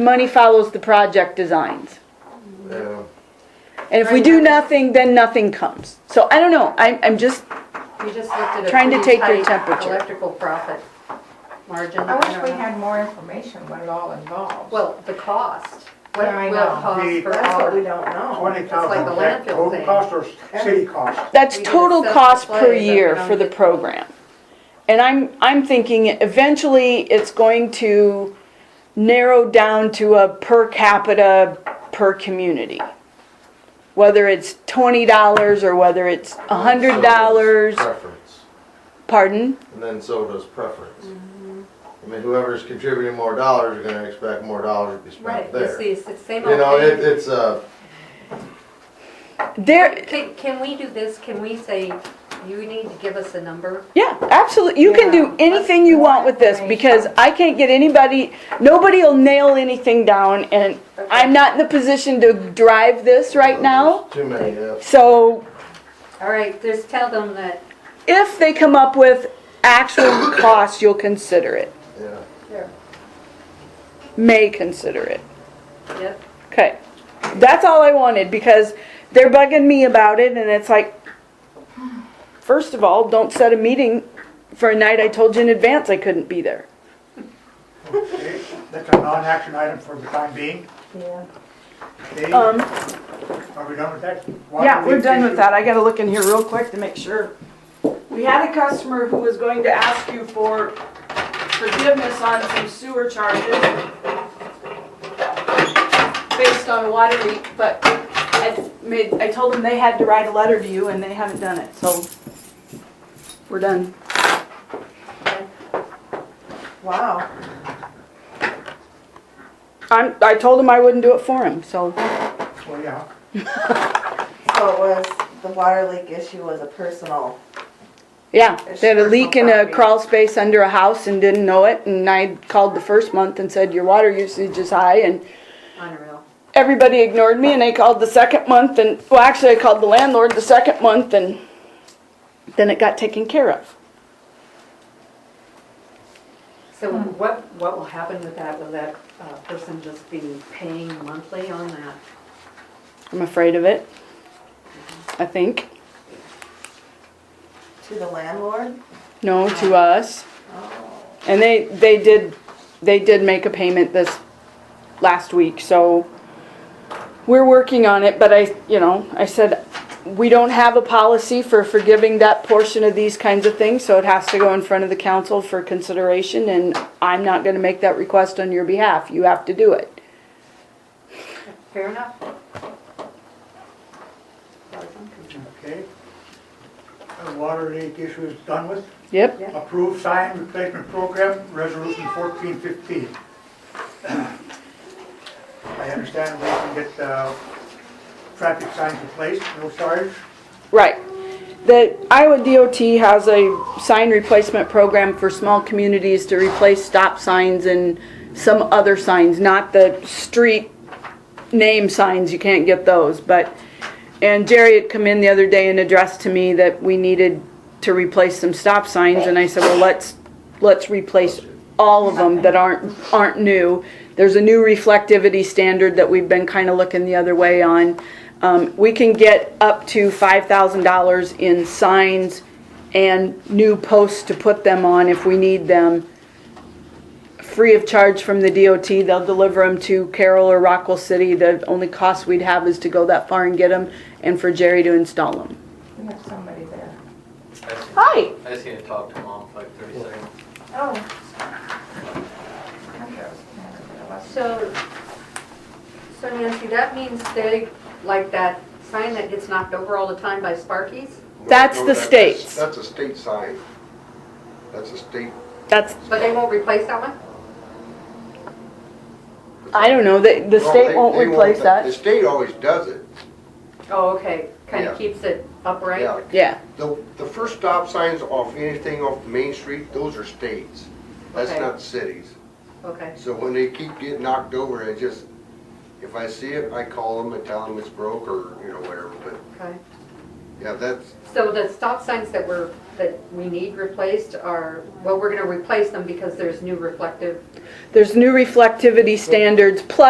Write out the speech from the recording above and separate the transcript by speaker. Speaker 1: money follows the project designs.
Speaker 2: Yeah.
Speaker 1: And if we do nothing, then nothing comes. So I don't know, I'm, I'm just,
Speaker 3: You just looked at a
Speaker 1: Trying to
Speaker 3: pretty
Speaker 1: take your
Speaker 3: tight
Speaker 1: temperature.
Speaker 3: Electrical profit margin.
Speaker 4: I wish
Speaker 3: don't
Speaker 4: we
Speaker 3: know.
Speaker 4: had more information what it all involves.
Speaker 3: Well, the cost, what
Speaker 4: Yeah, I
Speaker 3: it will
Speaker 4: know.
Speaker 3: cost
Speaker 2: The-
Speaker 3: per
Speaker 4: That's what we
Speaker 3: hour.
Speaker 4: don't know.
Speaker 2: Twenty
Speaker 3: like
Speaker 2: thousand,
Speaker 3: the
Speaker 2: that
Speaker 3: landfill
Speaker 2: total
Speaker 3: thing.
Speaker 2: cost or city cost?
Speaker 1: that's
Speaker 3: We did a
Speaker 1: total
Speaker 3: set
Speaker 1: cost per
Speaker 3: display, but we
Speaker 1: year
Speaker 3: don't
Speaker 1: for the
Speaker 3: get-
Speaker 1: program. And I'm, I'm thinking eventually it's going to narrow down to a per capita, per community. Whether it's twenty dollars or whether it's a hundred dollars,
Speaker 5: Preference,
Speaker 1: pardon?
Speaker 5: and then so does preference. I mean, whoever's contributing more dollars are gonna expect more dollars to be
Speaker 3: Right,
Speaker 5: spent
Speaker 3: it's
Speaker 5: there. You
Speaker 3: the it's the same old
Speaker 5: know, it,
Speaker 3: thing.
Speaker 5: it's
Speaker 6: uh,
Speaker 5: a,
Speaker 1: There,
Speaker 3: Can, can we do this? Can we say, you need to give us a number?
Speaker 1: Yeah, absolutely. You can
Speaker 4: Yeah,
Speaker 1: do anything you want with this because I can't get anybody, nobody will nail anything down and I'm not in the position to drive this right now.
Speaker 5: too many ifs.
Speaker 1: So
Speaker 3: All right, just tell them that,
Speaker 1: if they come up with actual costs, you'll consider it,
Speaker 5: yeah.
Speaker 1: may consider it.
Speaker 3: yep,
Speaker 1: Okay, that's all I wanted because they're bugging me about it and it's like, first of all, don't set a meeting for a night I told you in advance I couldn't be there.
Speaker 2: Okay, That's a non-action item for the time being.
Speaker 4: Yeah.
Speaker 2: Okay, are
Speaker 1: Um,
Speaker 2: we done with that?
Speaker 1: Yeah,
Speaker 2: Water
Speaker 1: we're
Speaker 2: leak
Speaker 1: done with
Speaker 2: issue?
Speaker 1: that. I gotta look in here real quick to make sure. We had a customer who was going to ask you for forgiveness on some sewer charges based on a water leak, but I made, I told them they had to write a letter to you and they haven't done it, so we're done.
Speaker 4: Wow.
Speaker 1: I'm, I told them I wouldn't do it for him, so.
Speaker 2: Well, yeah,
Speaker 7: So it was, the water leak issue was a personal,
Speaker 1: Yeah,
Speaker 7: It's
Speaker 1: they had a
Speaker 7: personal
Speaker 1: leak in a
Speaker 7: property.
Speaker 1: crawl space under a house and didn't know it, and I called the first month and said, your water usage is high, and
Speaker 3: unreal.
Speaker 1: everybody ignored me and I called the second month and, well, actually I called the landlord the second month and then it got taken care of.
Speaker 3: So
Speaker 4: Hmm.
Speaker 3: what, what will happen with that? Will that uh, person just be paying monthly on that?
Speaker 1: I'm afraid of it. I think.
Speaker 7: to the landlord?
Speaker 1: No, to us. And they, they did, they did make a payment this last week, so we're working on it, but I, you know, I said, we don't have a policy for forgiving that portion of these kinds of things, so it has to go in front of the council for consideration, and I'm not gonna make that request on your behalf, you have to do it.
Speaker 3: Fair enough?
Speaker 2: okay. The Water leak issue is done with.
Speaker 1: Yep,
Speaker 2: Approved sign replacement program, resolution fourteen fifteen. I understand we can get, uh, traffic signs replaced, no charge.
Speaker 1: right. The Iowa DOT has a sign replacement program for small communities to replace stop signs and some other signs, not the street name signs, you can't get those, but, and Jerry had come in the other day and addressed to me that we needed to replace some stop signs, and I said, well, let's, let's replace all of them that aren't, aren't new. There's a new reflectivity standard that we've been kinda looking the other way on. Um, we can get up to five thousand dollars in signs and new posts to put them on if we need them free of charge from the DOT. They'll deliver them to Carroll or Rockwell City. The only cost we'd have is to go that far and get them and for Jerry to install them.
Speaker 4: We have somebody there.
Speaker 1: Hi.
Speaker 8: I just need to talk to mom for like 30 seconds.
Speaker 4: Oh. I thought it was kind of a little-
Speaker 3: So, so Nancy, that means they, like that sign that gets knocked over all the time by Sparkies?
Speaker 1: That's
Speaker 6: No,
Speaker 1: the
Speaker 6: that-
Speaker 1: state's.
Speaker 6: That's a state sign. That's a state.
Speaker 1: That's,
Speaker 3: But they won't replace that one?
Speaker 1: I don't know, the, the
Speaker 6: No,
Speaker 1: state
Speaker 6: they-
Speaker 1: won't
Speaker 6: they
Speaker 1: replace
Speaker 6: The
Speaker 1: that.
Speaker 6: state always does it.
Speaker 3: Oh, okay, kind
Speaker 6: Yeah.
Speaker 3: of keeps it upright?
Speaker 6: Yeah.
Speaker 1: Yeah,
Speaker 6: The, the first stop signs off anything off Main Street, those are states. That's
Speaker 3: Okay.
Speaker 6: not cities.
Speaker 3: Okay,
Speaker 6: So when they keep getting knocked over, I just, if I see it, I call them and tell them it's broke or, you know, whatever. But
Speaker 3: okay.
Speaker 6: yeah, that's,
Speaker 3: So the stop signs that were that we need replaced are, well, we're gonna replace them because there's new reflective
Speaker 1: There's new reflectivity standards, plus